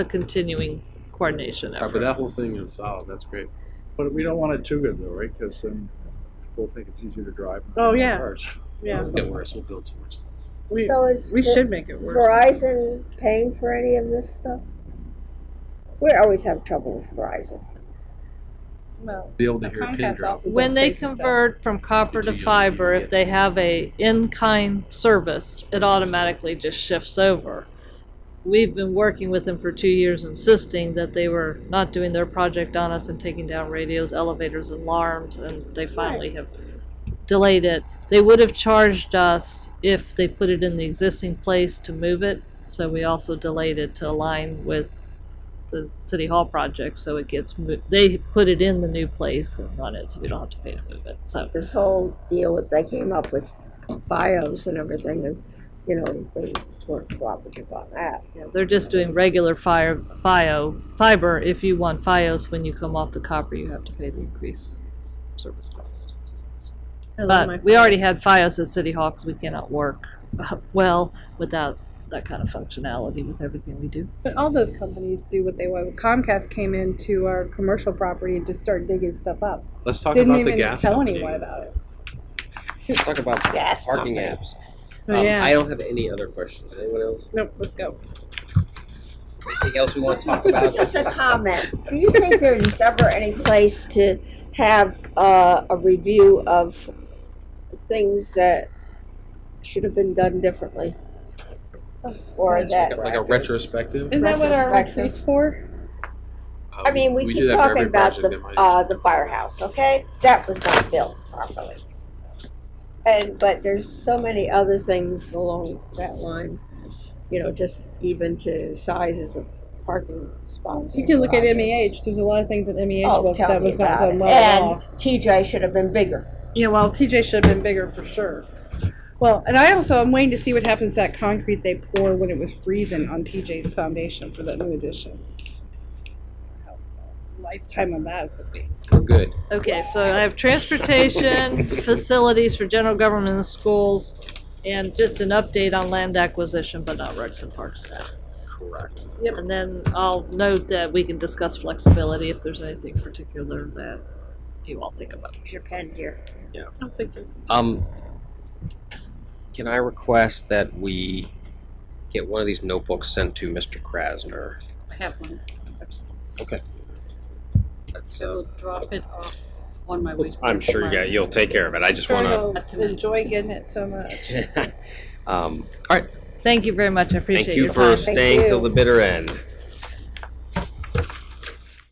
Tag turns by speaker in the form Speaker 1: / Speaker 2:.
Speaker 1: a continuing coordination
Speaker 2: But
Speaker 1: effort.
Speaker 2: that whole thing is solid, that's great.
Speaker 3: But we don't want it too good though, right? Because then people think it's easier to drive.
Speaker 1: Oh, yeah.
Speaker 3: Cars.
Speaker 1: Yeah,
Speaker 2: It'll get worse, we'll build some worse.
Speaker 3: We,
Speaker 4: So is
Speaker 5: We
Speaker 4: Ver-
Speaker 5: should make it worse.
Speaker 4: Verizon paying for any of this stuff? We always have trouble with Verizon.
Speaker 5: Well,
Speaker 2: Be able to hear a pin
Speaker 5: Comcast
Speaker 2: drop.
Speaker 5: also
Speaker 1: when
Speaker 5: does
Speaker 1: they
Speaker 5: basic stuff.
Speaker 1: convert from copper to fiber, if they have a in-kind service, it automatically just shifts over. We've been working with them for two years insisting that they were not doing their project on us and taking down radios, elevators, and alarms, and they finally have delayed it. They would have charged us if they put it in the existing place to move it, so we also delayed it to align with the city hall project, so it gets moved. They put it in the new place and run it, so we don't have to pay to move it. So
Speaker 4: This whole deal that they came up with FiOS and everything, and, you know, they weren't cooperative on that.
Speaker 1: yeah, they're just doing regular fire bio fiber. If you want FiOS, when you come off the copper, you have to pay the increase service cost.
Speaker 5: I love my
Speaker 1: But we already
Speaker 5: files.
Speaker 1: had FiOS at City Hall because we cannot work uh, well without that kind of functionality with everything we do.
Speaker 5: But all those companies do what they want. Comcast came into our commercial property and just started digging stuff up.
Speaker 2: Let's talk
Speaker 5: Didn't
Speaker 2: about the
Speaker 5: even
Speaker 2: gas
Speaker 5: tell
Speaker 2: company.
Speaker 5: anyone about it.
Speaker 6: Let's talk about
Speaker 4: Yes.
Speaker 6: parking apps.
Speaker 5: Oh,
Speaker 6: Um,
Speaker 5: yeah.
Speaker 6: I don't have any other questions. Anyone else?
Speaker 5: nope. Let's go.
Speaker 6: Anything else we want to talk about?
Speaker 4: Just a comment. Do you think there's ever any place to have uh, a review of things that should have been done differently? Or
Speaker 6: It's like
Speaker 4: that,
Speaker 6: a- like a retrospective.
Speaker 5: Isn't that what our
Speaker 4: Retrospective.
Speaker 5: retreat's for?
Speaker 2: Uh,
Speaker 4: I mean, we
Speaker 2: do
Speaker 4: keep
Speaker 2: that for
Speaker 4: talking
Speaker 2: every
Speaker 4: about
Speaker 2: project
Speaker 4: the,
Speaker 2: in my-
Speaker 4: uh, the firehouse, okay? That was not built properly. And, but there's so many other things along that line, you know, just even to sizes of parking spots.
Speaker 5: You
Speaker 4: and
Speaker 5: can look at
Speaker 4: garages.
Speaker 5: MEH. There's a lot of things at MEH
Speaker 4: Oh,
Speaker 5: was-
Speaker 4: tell
Speaker 5: that
Speaker 4: me
Speaker 5: was not
Speaker 4: about
Speaker 5: done
Speaker 4: it.
Speaker 5: well at all.
Speaker 4: And TJ should have been bigger.
Speaker 5: Yeah, well, TJ should have been bigger for sure. Well, and I also am waiting to see what happens to that concrete they pour when it was freezing on TJ's foundation for that new addition. How Lifetime on that would be.
Speaker 6: We're good.
Speaker 1: Okay, so I have transportation, facilities for general government and schools, and just an update on land acquisition, but not Rex and Parks staff.
Speaker 6: Correct.
Speaker 1: And then I'll note that we can discuss flexibility if there's anything particular that you all think about.
Speaker 4: Here's your pen here.
Speaker 6: Um, can I request that we get one of these notebooks sent to Mr. Krasner?
Speaker 7: I have one.
Speaker 6: That's,
Speaker 7: I
Speaker 6: uh,
Speaker 7: will drop it off on my way.
Speaker 6: I'm sure you got, you'll take care of it. I just wanna.
Speaker 5: Sure you'll enjoy getting it so much.
Speaker 6: Um, all right,
Speaker 1: Thank you very much, I
Speaker 6: thank
Speaker 1: appreciate
Speaker 6: you
Speaker 1: your
Speaker 6: for
Speaker 1: time.
Speaker 6: staying till
Speaker 4: you.
Speaker 6: the bitter end.